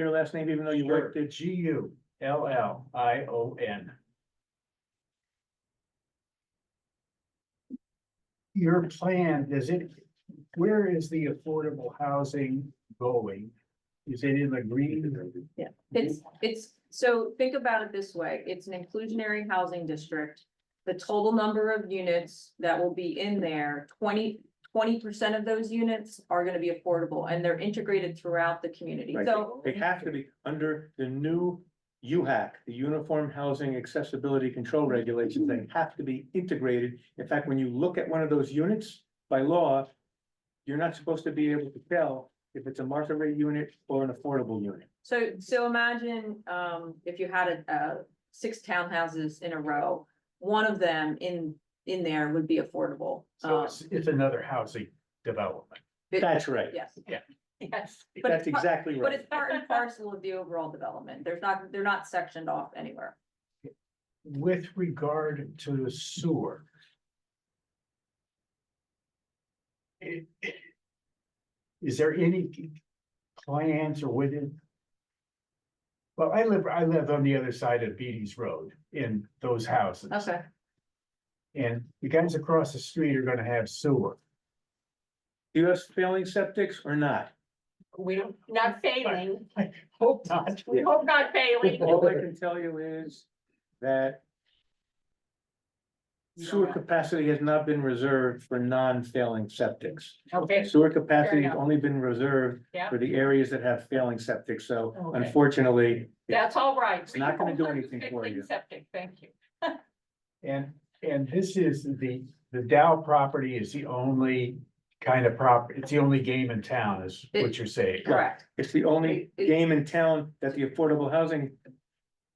your last name, even though you worked at G U L L I O N. Your plan, does it, where is the affordable housing going? Is it in the green? It's, it's, so think about it this way, it's an inclusionary housing district. The total number of units that will be in there, 20 percent of those units are gonna be affordable and they're integrated throughout the community, Right. so. They have to be under the new UHAC, the Uniform Housing Accessibility Control Regulations, they have to be integrated. In fact, when you look at one of those units, by law, you're not supposed to be able to tell if it's a market rate unit or an affordable unit. So, so imagine, um, if you had a, uh, six townhouses in a row, one of them in, in there would be affordable. So Um, it's, it's another housing development. it- That's right. Yes. Yeah. Yes. But That's it's, par- exactly but right. it's part and parcel of the overall development, there's not, they're not sectioned off anywhere. With regard to the sewer. i- Is there any plans or within? Well, I live, I live on the other side of Beatty's Road in those houses. Okay. And the guys across the street are gonna have sewer. Do you have failing septics or not? We don't, not failing, Hope not. we hope not failing. All I can tell you is that sewer capacity has not been reserved for non-failing septics. Okay, Sewer capacity has enough. only been reserved Yeah. for the areas that have failing septic, so Okay. unfortunately, that's all right. It's not gonna do We're anything for fixing you. Septic, thank you. And, and this is the, the Dow property is the only kind of prop, it's the only game in town is what you're saying. Correct, it's the only It- it- game in town that the Affordable Housing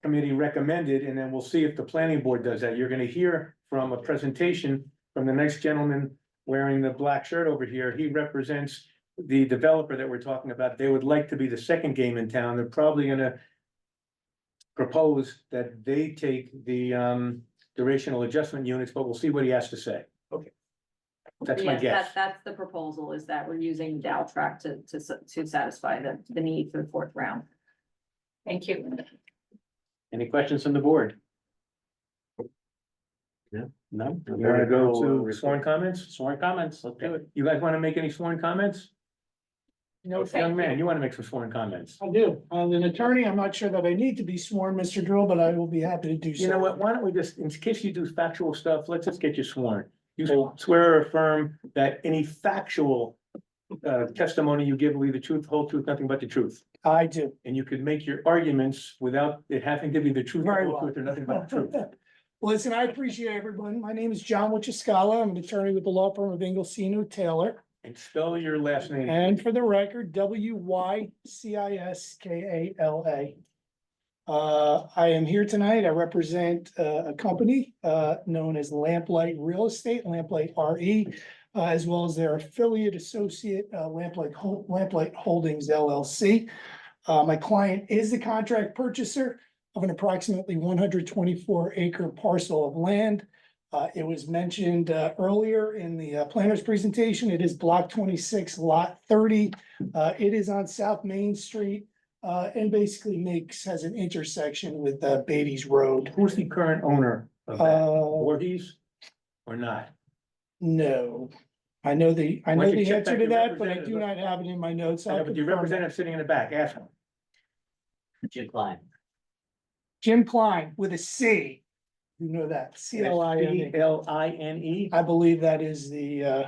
Committee recommended, and then we'll see if the planning board does that. You're gonna hear from a presentation from the next gentleman wearing the black shirt over here. He represents the developer that we're talking about. They would like to be the second game in town. They're probably gonna propose that they take the um durational adjustment units, but we'll see what he has to say. Okay. That's my yes, guess. that, that's the proposal, is that we're using Dow track to, to, s- to satisfy the, the need for the fourth round. Thank you. Any questions from the board? No. No. You wanna go to sworn comments? Sworn comments, let's do it. You guys wanna make any sworn comments? No, Young thank man, you. you wanna make some sworn comments? I do. As an attorney, I'm not sure that I need to be sworn, Mr. Drill, but I will be happy to do so. You know what, why don't we just, in case you do factual stuff, let's just get you sworn. You swear or affirm that any factual uh, testimony you give will be the truth, whole truth, nothing but the truth. I do. And you can make your arguments without it having to be the truth, the Very whole well. truth, or nothing but the truth. Listen, I appreciate everyone. My name is John Wachuskala. I'm an attorney with the law firm of Inglesino Taylor. And spell your last name. And for the record, W Y C I S K A L A. Uh, I am here tonight. I represent uh, a company uh, known as Lamplight Real Estate, Lamplight R E, uh, as well as their affiliate associate, uh, Lamplight, Hol- Lamplight Holdings LLC. Uh, my client is the contract purchaser of an approximately one hundred twenty-four acre parcel of land. Uh, it was mentioned, uh, earlier in the uh, planner's presentation. It is block twenty-six, lot thirty. Uh, it is on South Main Street, uh, and basically makes, has an intersection with, uh, Beatty's Road. Who's the current owner of that? Uh, Voorhees or not? no, I know the, Why I know don't you the check answer back to your that, but I representative? do not have it in my notes. I'll I know, But your confirm that. representative sitting in the back, ask him. Jim Klein. Jim Klein with a C. You know that, C L I N E. L I N E. I believe that is the, uh,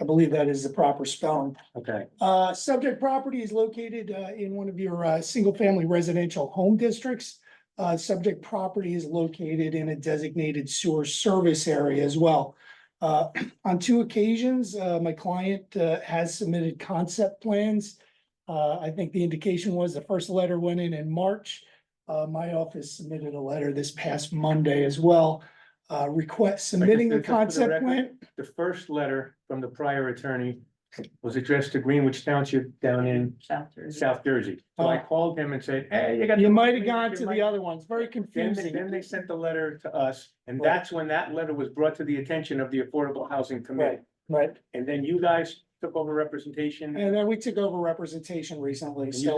I believe that is the proper spelling. Okay, Uh, subject property is located, uh, in one of your, uh, single-family residential home districts. Uh, subject property is located in a designated sewer service area as well. Uh, on two occasions, uh, my client, uh, has submitted concept plans. Uh, I think the indication was the first letter went in in March. Uh, my office submitted a letter this past Monday as well, uh, request submitting the just for the concept record, plan. the first letter from the prior attorney was addressed to Greenwich Township down in Chapters. South Jersey. So I called him and said, hey, you got. Oh. You the- might have gone to the Then other ones, very they- confusing. Then they sent the letter to us, and Right. that's when that letter was brought to the attention of the Affordable Housing Committee. Right, And then you guys took over representation. and then we took over representation recently, And you so.